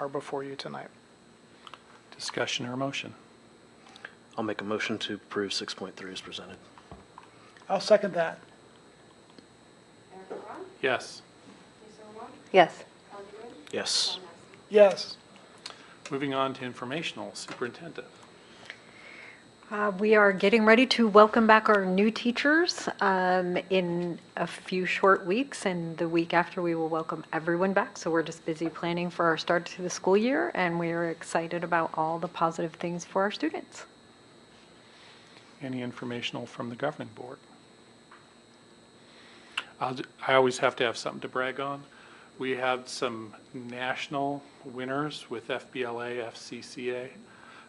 are before you tonight. Discussion or motion? I'll make a motion to approve 6.3 as presented. I'll second that. Erica Braun, Yes. Lisa Rowan, Yes. Kelly Green, Yes. John Massey. Yes. Moving on to informational superintendent. Uh, We are getting ready to welcome back our new teachers um, in a few short weeks, and the week after, we will welcome everyone back. So we're just busy planning for our start to the school year, and we are excited about all the positive things for our students. Any informational from the governing board? I'll ju- I always have to have something to brag on. We had some national winners with FBLA, FCCA,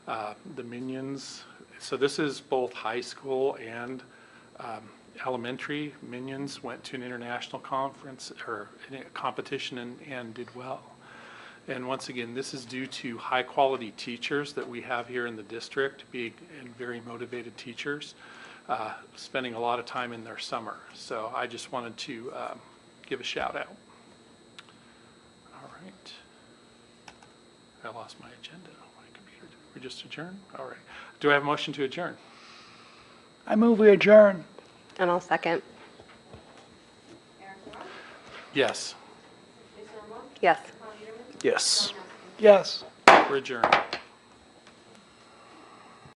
uh, the Minions. So this is both high school and um, elementary. Minions went to an international conference or a competition and and did well. And once again, this is due to high-quality teachers that we have here in the district, being, and very motivated teachers, uh, spending a lot of time in their summer. So I just wanted to um, give a shout out. All right. I lost my agenda on my computer. Did we just adjourn? All right. Do I have a motion to adjourn? I move we adjourn. And I'll second. Erica Braun, Yes, Lisa Rowan, Yes. Kelly Green, Yes. John Massey. Yes. we're adjourned.